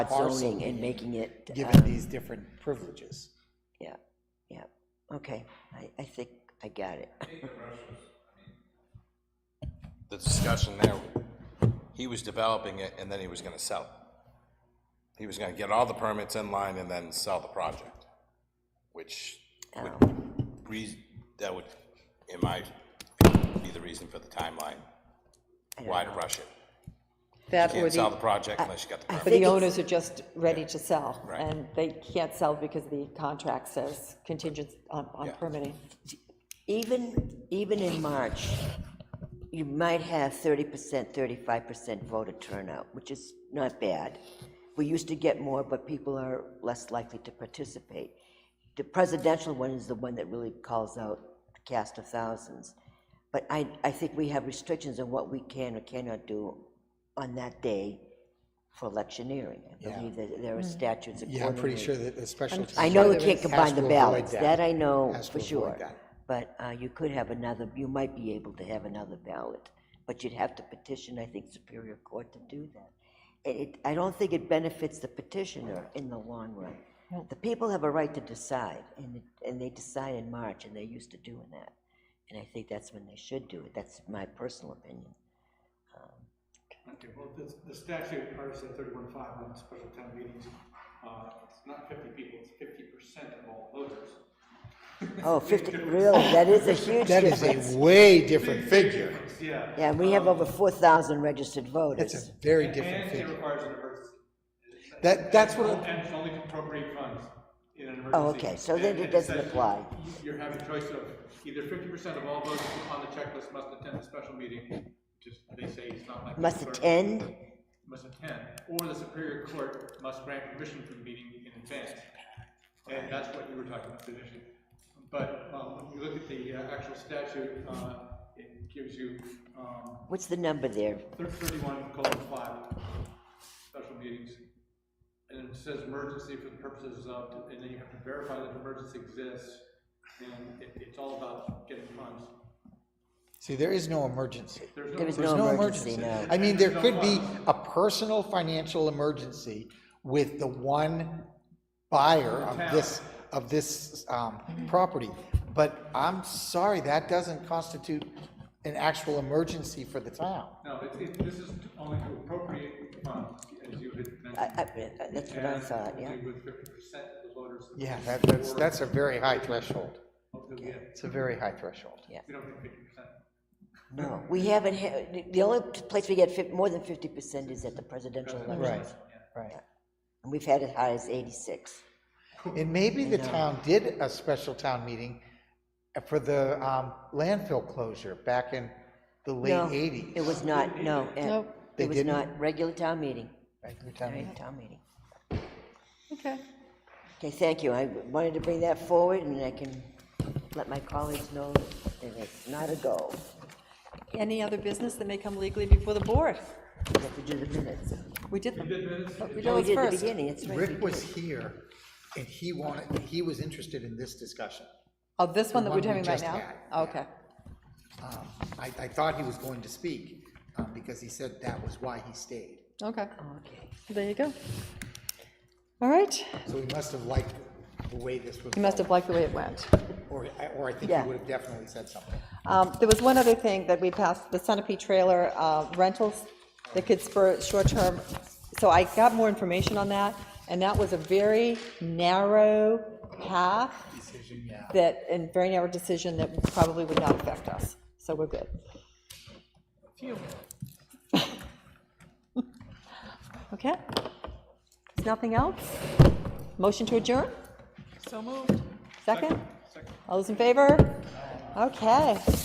zoning and making it, given um, these different privileges. yeah, yeah, okay, I, I think I got it. the discussion there, he was developing it and then he was gonna sell it. He was gonna get all the permits in line and then sell the project, which would, Oh. re- that would, in my, be the reason for the timeline, why to rush it. That or Can't sell the the, project unless you got the I permit. think the it's- owners are just ready to sell, Right. and they can't sell because the contract says contingent on on Yeah. permitting. Even, even in March, you might have 30%, 35% voter turnout, which is not bad. We used to get more, but people are less likely to participate. The presidential one is the one that really calls out the cast of thousands. But I, I think we have restrictions on what we can or cannot do on that day for electioneering. I believe that there are statutes accordingly. Yeah, I'm pretty sure that the special. I know you can't has combine the to avoid ballots, that I know Has to for avoid sure. that. But uh, you could have another, you might be able to have another ballot, but you'd have to petition, I think, Superior Court to do that. It, it- I don't think it benefits the petitioner in the long run. The people have a right to decide, and, it- and they decide in March, and they're used to doing that. And I think that's when they should do it, that's my personal opinion. Okay, well, this, the statute, partisan thirty-one five, on special town meetings, uh, it's not fifty people, it's fifty percent of all voters. Oh, 50, really, that is a huge That is a difference. way different figure. Yeah. Yeah, we have over 4,000 registered voters. That's a very different And it figure. requires an emergency. That, that's what, I- And it's only to appropriate funds in an emergency. Oh, okay, so then And- it and doesn't says apply. you- You're having choice of either fifty percent of all voters on the checklist must attend a special meeting, which is, they say it's not like. Must attend? must attend, or the Superior Court must grant permission for the meeting in advance. And that's what you were talking about, petition. But um, when you look at the uh, actual statute, uh, it gives you um, What's the number there? thir- 31 colon 5 special meetings. And it says emergency for the purposes of, and then you have to verify that emergency exists. And it- it's all about getting funds. see, there is no emergency. There's There no, was There's no emergency. no. I mean, there could be a personal financial emergency with the one buyer of this, of this um, property. But I'm sorry, that doesn't constitute an actual emergency for the town. no, it's- it- this is only to appropriate funds, as you had mentioned. I, I, that's what I thought, yeah. With fifty percent of the voters. Yeah, that- that's, that's a very high threshold. Hopefully, we have- It's a very high threshold. we don't get fifty percent. No, we haven't, ha- the- the only place we get fif- more than fifty percent is at the presidential Right, elections. right. And we've had it high as eighty-six. And maybe the town did a special town meeting for the um, landfill closure back in the late No, eighties. It was not, no, Ed. Nope. They it was didn't? not, regular town meeting, regular Right. town meeting. Okay. Okay, thank you, I wanted to bring that forward, and I can let my colleagues know that it's not a goal. Any other business that may come legally before the board? We have to do the minutes. We did them. But we Oh, we did at did those the first. beginning, it's right. we Rick did. was here, and he wanted, he was interested in this discussion. Oh, this one that we're one we doing right just now? Oh, had, Okay. Um, I, I thought he was going to speak, um, because he said that was why he stayed. Okay. Okay. There you go. All right. So he must have liked the way this was. You must have liked the way it went. going, Or, I- or I think Yeah. he would have definitely said something. Um, There was one other thing that we passed, the Sunapee trailer uh, rentals that could spur short-term, so I got more information on that, and that was a very narrow path that, and very narrow decision that probably would not affect us, so we're good. Okay? Is Nothing else? Motion to adjourn? So moved. Second? All those in favor? Okay.